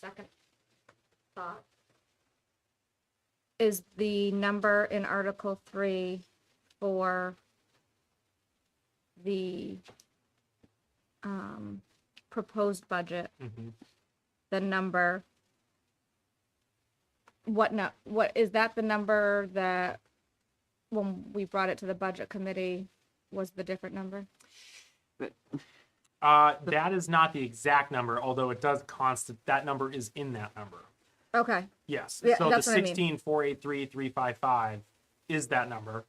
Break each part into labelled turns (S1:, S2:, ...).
S1: second thought is the number in Article Three for the um, proposed budget,
S2: Mm-hmm.
S1: the number. What no, what, is that the number that when we brought it to the budget committee was the different number?
S2: Uh, that is not the exact number, although it does constant, that number is in that number.
S1: Okay,
S2: Yes,
S1: Yeah,
S2: so the
S1: that's what I mean.
S2: sixteen, four, eight, three, three, five, five is that number.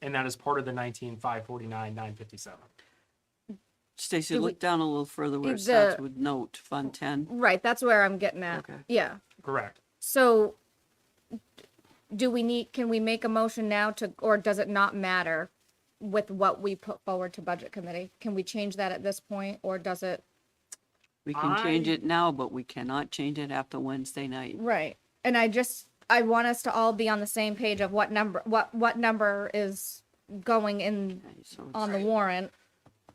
S2: And that is part of the nineteen, five, forty-nine, nine, fifty-seven.
S3: Stacy,
S1: Do we-
S3: look down a little further where it
S1: Is
S3: starts
S1: the-
S3: with note, Fund 10.
S1: right, that's where I'm getting at.
S3: Okay.
S1: Yeah.
S2: Correct.
S1: So do we need, can we make a motion now to, or does it not matter with what we put forward to budget committee? Can we change that at this point or does it?
S3: We can change
S2: I-
S3: it now, but we cannot change it after Wednesday night.
S1: Right. And I just, I want us to all be on the same page of what number, what, what number is going in
S3: Okay, So it's-
S1: on the warrant,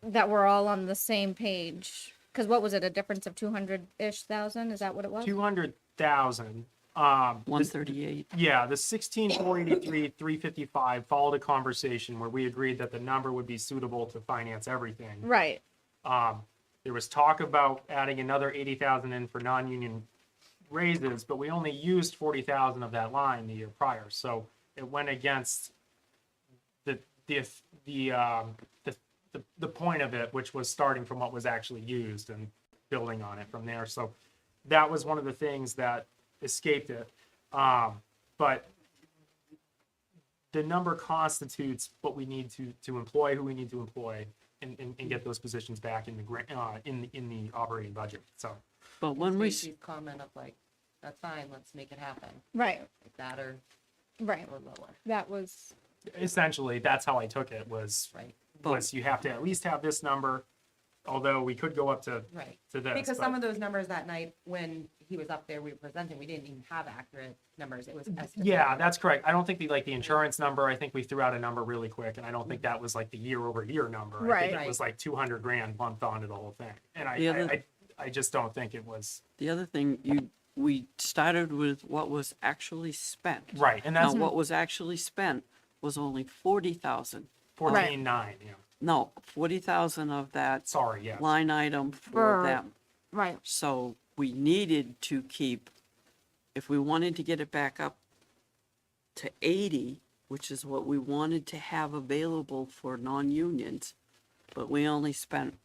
S1: that we're all on the same page. Cause what was it, a difference of two hundred-ish thousand? Is that what it was?
S2: Two hundred thousand, um, this-
S3: 138.
S2: Yeah, the sixteen four eighty-three, three fifty-five followed a conversation where we agreed that the number would be suitable to finance everything.
S1: Right,
S2: Um, there was talk about adding another eighty thousand in for non-union raises, but we only used forty thousand of that line the year prior, so it went against the, the, the, um, the, the, the point of it, which was starting from what was actually used and building on it from there, so that was one of the things that escaped it. Um, but the number constitutes what we need to, to employ, who we need to employ, and, and, and get those positions back in the grant, uh, in, the- in the operating budget, so.
S3: But when we, s-
S4: Stacy's comment of like, that's fine, let's make it happen,
S1: right,
S4: like that or,
S1: right.
S4: or lower,
S1: That was,
S2: Essentially, that's how I took it, was,
S4: right,
S2: was you have to at least have this number, although we could go up to,
S4: right.
S2: to this.
S4: Because
S2: but-
S4: some of those numbers that night, when he was up there, we were presenting, we didn't even have accurate numbers, it was estimated.
S2: Mm-hmm. Yeah, that's correct. I don't think the, like, the insurance number, I think we threw out a number really quick, and I don't think that was like the year over year number. I think
S4: Right.
S2: It was like two hundred grand lumped onto the whole thing, and I,
S3: The other-
S2: I, I I just don't think it was,
S3: the other thing, you, we started with what was actually spent.
S2: right, and
S3: Now,
S2: that's
S3: what was actually spent was only 40,000.
S2: fourteen nine, yeah,
S3: No, 40,000 of that
S2: sorry, yeah.
S3: line item
S1: For-
S3: for them.
S1: right,
S3: So we needed to keep, if we wanted to get it back up to eighty, which is what we wanted to have available for non-unions, but we only spent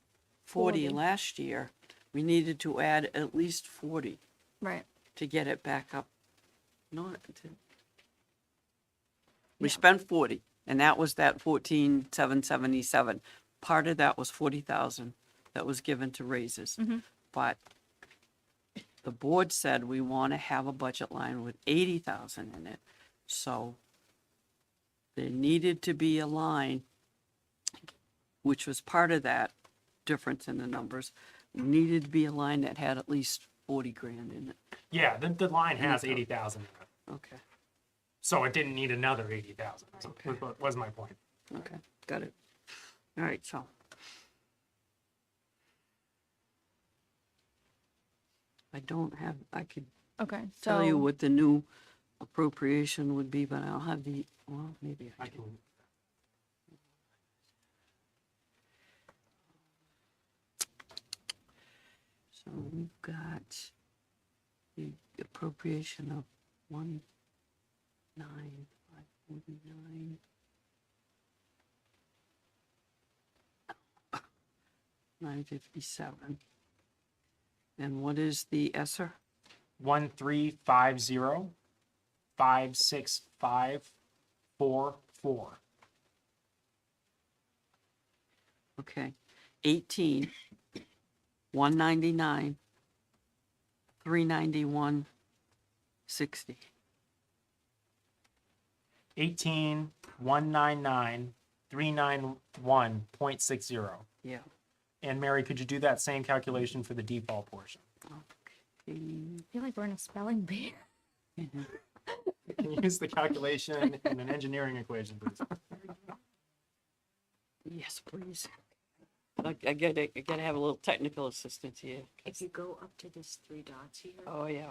S3: forty
S1: Forty.
S3: last year, we needed to add at least forty
S1: right.
S3: to get it back up. Not to. We spent forty, and that was that fourteen, seven seventy-seven. Part of that was forty thousand that was given to raises. But the board said we want to have a budget line with eighty thousand in it, so there needed to be a line, which was part of that difference in the numbers, needed to be a line that had at least forty grand in it.
S2: Yeah, the, the line has
S3: Yeah.
S2: eighty thousand in it,
S3: Okay,
S2: so it didn't need another eighty thousand.
S3: Okay.
S2: Was my point.
S3: okay, got it. All right, so. I don't have, I could
S1: Okay, so.
S3: tell you what the new appropriation would be, but I don't have the, well, maybe I
S2: I
S3: do.
S2: can.
S3: So we've got the appropriation of one nine five forty-nine. Nine fifty-seven. And what is the Esser?
S2: One three five zero, five six five, four four.
S3: Okay, eighteen, one ninety-nine, three ninety-one, sixty.
S2: Eighteen one nine nine three nine one point six zero.
S3: Yeah.
S2: And Mary, could you do that same calculation for the default portion?
S3: Okay.
S1: I feel like we're in a spelling bee.
S2: Can you use the calculation in an engineering equation, please?
S3: Yes, please. I I gotta, I gotta have a little technical assistance here.
S5: If you go up to this three dots here.
S3: Oh, yeah.